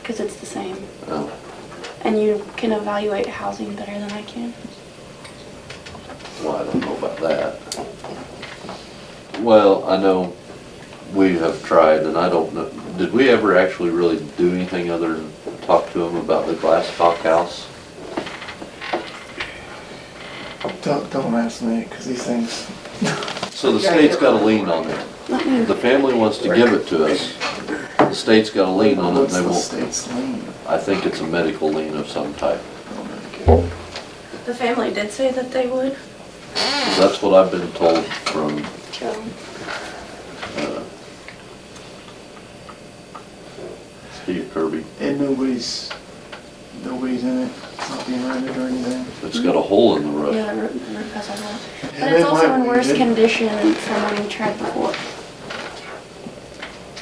because it's the same. Oh, And you can evaluate housing better than I can. well, I don't know about that. Well, I know we have tried, and I don't know, did we ever actually really do anything other than talk to them about the glass house? Don't, don't ask me, because these things, So the state's got a lien on it. Let me, The family wants to give it to us. The state's got a lien on it, and what's they the won't. state's lien? I think it's a medical lien of some type. the family did say that they would. That's what I've been told from, Joe. uh, Steve Kirby. And nobody's, nobody's in it, it's not being rented or anything. It's got a hole in the Yeah, roof. the roof the roof has a hole. But And it's they also might- in worse they- condition than someone tried before.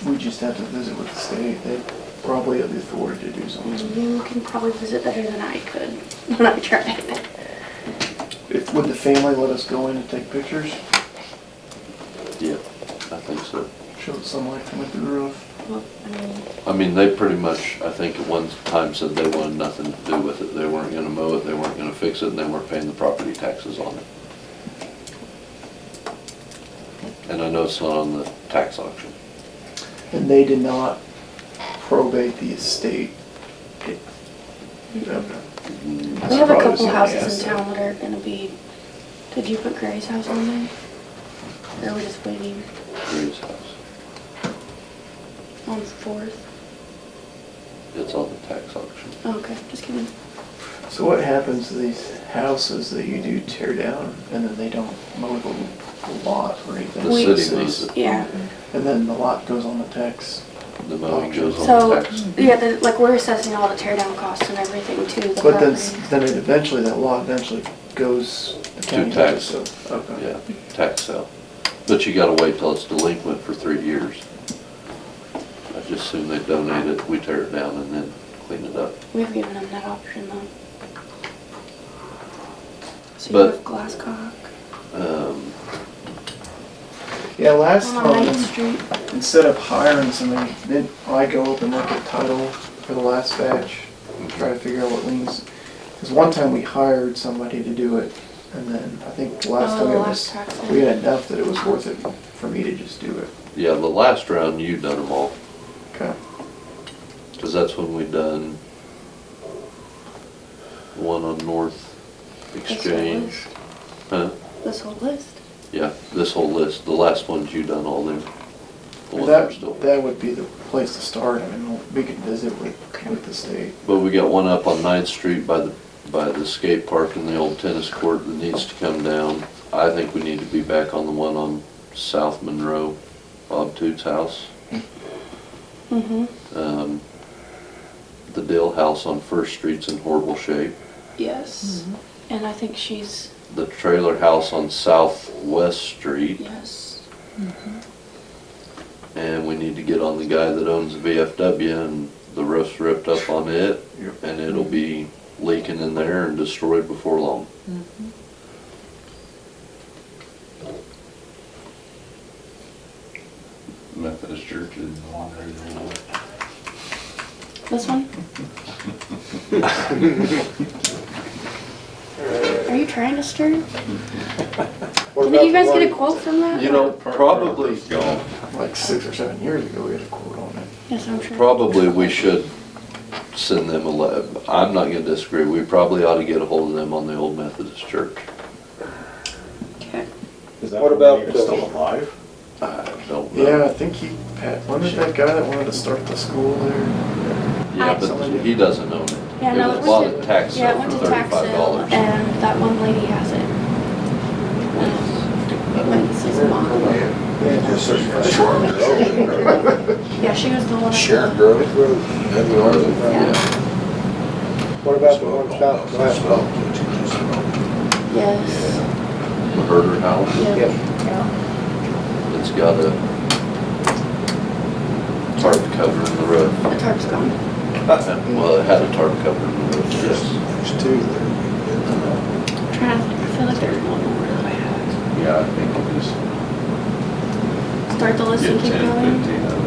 We just have to visit with the state, they probably have the authority to do something. You can probably visit better than I could when I tried. If, would the family let us go in and take pictures, Yeah, I think so. show the sunlight coming through the roof? Well, I mean, I mean, they pretty much, I think at one time said they wanted nothing to do with it. They weren't gonna mow it, they weren't gonna fix it, and they weren't paying the property taxes on it. And I know it's not on the tax auction. And they did not probate the estate. It- uh, okay. we have a Probably couple somebody houses asked in that. town that are gonna be, did you put Gray's house on there? Or are we just waiting Grady's house. on Fourth? Oh, It's on the tax auction. Okay, just kidding. So what happens to these houses that you do tear down and then they don't mow the lot or anything? The We- city mows it, Yeah. And then the lot goes on the tax. the mowing goes on the So, tax. yeah, the, like, we're assessing all the tear down costs and everything to the But then, property. then it eventually, that lot eventually goes. the To county tax. so- Okay. Yeah, tax sale. But you gotta wait till it's delinquent for three years. I just assume they donate it, we tear it down and then clean it up. We've given them that option though. So you But- have Glasscock Um, Yeah, last on Ninth time, Street. instead of hiring somebody, didn't I go up and look at title for the last batch? and Try to figure out what liens, because one time we hired somebody to do it, and then I think the last Oh, time the it last was, tax we sale. had enough that it was worth it for me to just do it. Yeah, the last round, you done them all, Okay. because that's when we done the one on North This whole Exchange. list. Huh? This whole list. Yeah, this whole list, the last ones you done all them. The ones that are That, still- that would be the place to start, I mean, we could visit with, with the state. But we got one up on Ninth Street by the, by the skate park and the old tennis court that needs to come down. I think we need to be back on the one on South Monroe, Bob Toots' house. Mm-hmm. Um, The Dill House on First Street's in horrible shape. Yes. And I think she's, The trailer house on Southwest Street. yes. And we need to get on the guy that owns the VFW and the roof's ripped up on it. Yep. And it'll be leaking in there and destroyed before long. Methodist Church is on there. you know. This one? Are you trying to stir? Did you guys get a quote from that? You know, probably, Gone. Like six or seven years ago, we had a quote on it. Yes, I'm sure. Probably we should send them a letter. I'm not gonna disagree. We probably ought to get a hold of them on the old Methodist church. Okay. Is that What one about even the- still alive? I don't Yeah, know. I think he, Pat, wasn't it that guy that wanted to start the school there? Yeah, but he doesn't own it. Yeah, It no, was it bought went at to- tax Yeah, it sale went for to tax thirty-five sale dollars. and that one lady has it. Lindsay's mom. Sharon Grove. Yeah, she was the one. at the- Sharon Grove Road. That's where it is. Yeah, What about the one about the glass Yes. the Herder House, Yeah. it's got a tarp cover in the roof. The tarp's gone. Well, it had a tarp cover in the roof, yes. There's two there. I'm Trying to, I feel like there's one more that I had. Yeah, I think it is. Start the list Get and keep ten, going. fifteen of